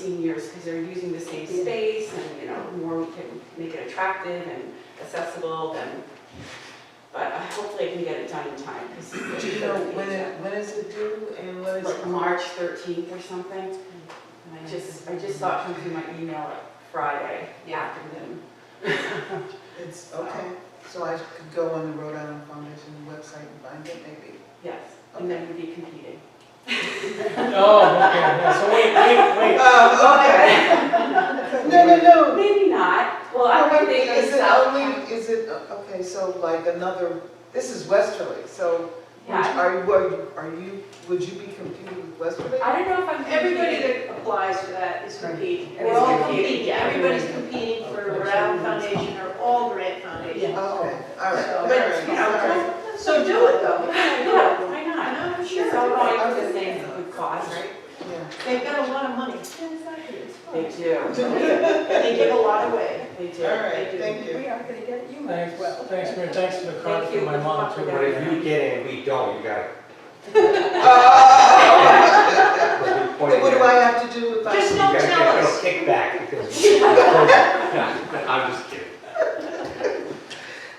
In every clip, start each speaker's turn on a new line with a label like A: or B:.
A: seniors because they're using the same
B: Yeah.
A: space and, you know, the more we can make it attractive and accessible, then, but uh, hopefully I can get it done in time because.
B: Do you know when it, when is it due and what is?
A: Like March thirteenth or something.
B: Mm.
A: And I just, I just saw it come through my email like Friday
C: Yeah.
A: afternoon.
B: It's, okay, so I could go on the Rhode Island Foundation website and find it maybe.
A: Yes, and then we'd be competing.
D: Oh, okay, yeah, so wait, wait, wait.
B: Oh, okay. No, no, no.
A: Maybe not. Well, I
B: Well,
A: don't
B: wait,
A: think they
B: Is it
A: sell.
B: only, is it, okay, so like another, this is Westerly, so
A: Yeah,
B: are you, are you- are you, would you be competing with Westerly?
A: I don't know if I'm.
C: Everybody that applies for that is competing.
A: Right.
C: We're all
A: Everybody's
C: competing,
A: competing, yeah.
C: everybody's competing for Rhode Island Foundation or all grant foundations.
B: Oh, all right, all
C: So,
B: right.
C: but, you know,
B: all right.
C: So do it though.
A: Yeah, why
C: I
A: not?
C: know, I'm
A: Sure,
C: sure.
A: it's all going to the same good cause, right?
B: Yeah.
C: They've got a lot of money.
A: They do,
C: They give a lot away.
A: they do.
B: All right, thank you.
C: are gonna get you
D: Thanks, thanks, Mary, thanks for the card
A: Thank
D: for
A: you.
D: my mom too.
E: But if you get it and we don't, you gotta.
B: Oh,
E: What
B: then what do I have to do if I?
C: Just
E: You
C: don't
E: gotta
C: tell
E: get a
C: us.
E: kickback because. I'm just kidding.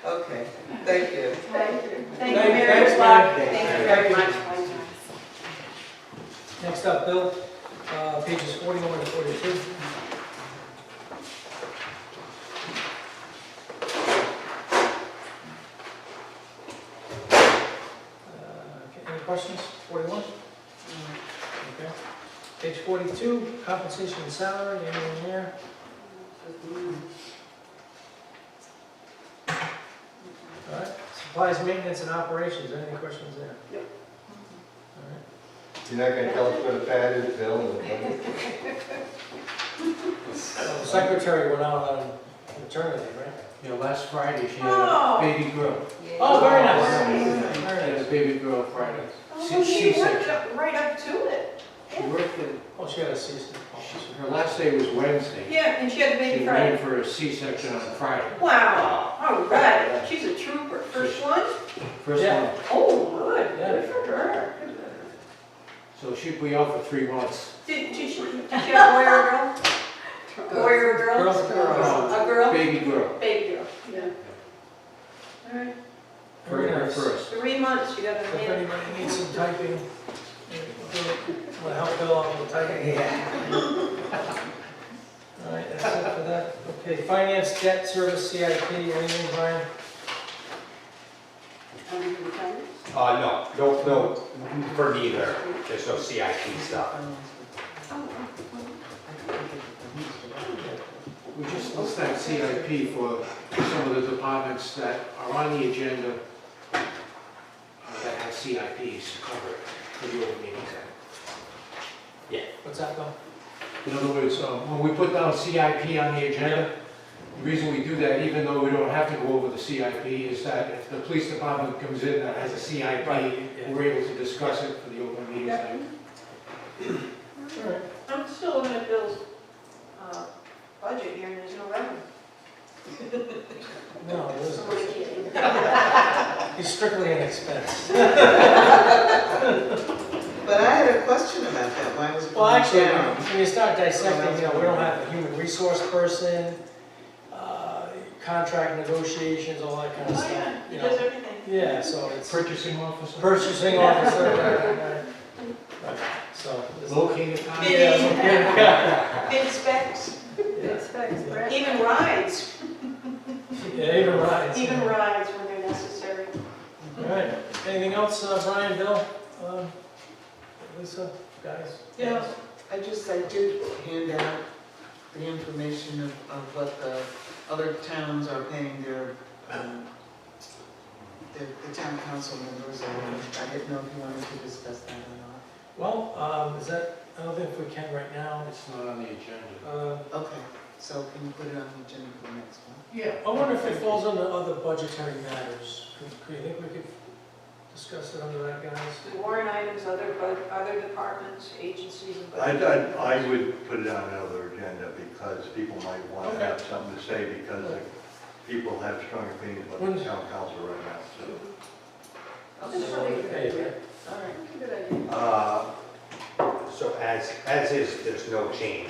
B: Okay, thank you.
C: Thank you,
D: Thank-
C: Mary.
D: thanks,
C: Good luck.
D: Mary.
C: Thank you very
D: Thank
C: much. Oh,
D: Next up, Bill, uh, pages forty-one and forty-two. Uh, okay, Any questions? Forty-one? Okay. Page forty-two, compensation and salary, anyone there? All right, supplies, maintenance, and operations, any questions there?
C: Yep.
D: All right.
F: You're not gonna tell us what a pad is, Bill? and-
D: Well, the Secretary went out on maternity, right?
G: Yeah, last Friday, she had
C: Oh.
G: a baby girl.
D: Oh, very nice.
C: nice.
G: She had a baby girl Friday.
C: Oh,
G: She-
C: she
G: she
C: worked
G: said-
C: up, right up to it.
G: She worked at,
D: Oh, she had a cease and
G: she-
D: desist.
G: her last day was Wednesday.
C: Yeah, and she had a
G: She
C: baby Friday.
G: ran for a C-section on Friday.
C: Wow, all right, she's a trooper. First one?
G: First
D: Yeah.
G: one,
C: Oh, good,
D: Yeah.
C: good for her. Good for her.
G: so she'd be out for three months.
C: Did, did she, did she have a boy or a girl? Boy or a girl?
D: Girls, girls.
C: A girl?
G: Baby girl,
C: Baby girl, yeah. All right,
G: very
D: Very
G: her
D: nice.
G: first.
C: three months, you got a
D: If
C: man.
D: anybody needs some typing, will help Bill out with typing. All right, that's it for that. Okay, finance, debt, service, CIP, anything, Brian?
E: Uh, no, no, no, for neither, there's no CIP stuff.
G: We just list that CIP for some of the departments that are on the agenda uh, that have CIPs covered for your meetings.
D: What's that, Bill?
G: In other words, um, when we put down CIP on the agenda, the reason we do that, even though we don't have to go over the CIP, is that if the police department comes in that has a CIP,
D: Yeah.
G: we're able to discuss it for the open meetings. act.
D: All right.
C: I'm still looking at Bill's, uh, budget here and there's no revenue.
D: No, it
C: I'm
D: isn't.
C: only kidding.
D: He's strictly an expense.
B: But I had a question about that, why was it?
D: Well, actually,
B: down?
D: when you start dissecting, you know, we don't have a human resource person, uh, contract negotiations, all that kind of
C: Oh,
D: stuff.
C: yeah, he
D: you
C: does
D: know.
C: everything.
D: Yeah, so it's
G: Purchasing officer,
D: purchasing officer. right, right. Right, So. this-
G: located on.
C: Bid-
D: Yeah, so- yeah,
C: Bid specs,
D: yeah.
C: even rides,
D: Yeah, even rides.
C: even
D: All
C: rides when they're necessary.
D: right, anything else, uh, Brian, Bill, um, Lisa, guys?
B: Yeah, I just, I did hand out the information of, of what the other towns are paying their, um, the, the town council members, and I didn't know if you wanted to discuss that or
D: Well, um, is that, I don't think we can right now,
G: It's not on the agenda.
D: uh,
B: not. Okay, so can you put it on the agenda for next one?
D: Yeah, I wonder if it falls under other budgetary matters. Could- could- you think we could discuss it under that, guys?
C: Warrant items, other, bud- other departments, agencies and
F: I,
C: budget.
F: I, I would put it on another agenda because people might want to
D: Okay.
F: have something to say because the people have strong opinions about the town council right now, so.
C: That's
B: Okay,
C: really good idea.
B: all right.
C: Good idea.
E: Uh, So as, as is, there's no change.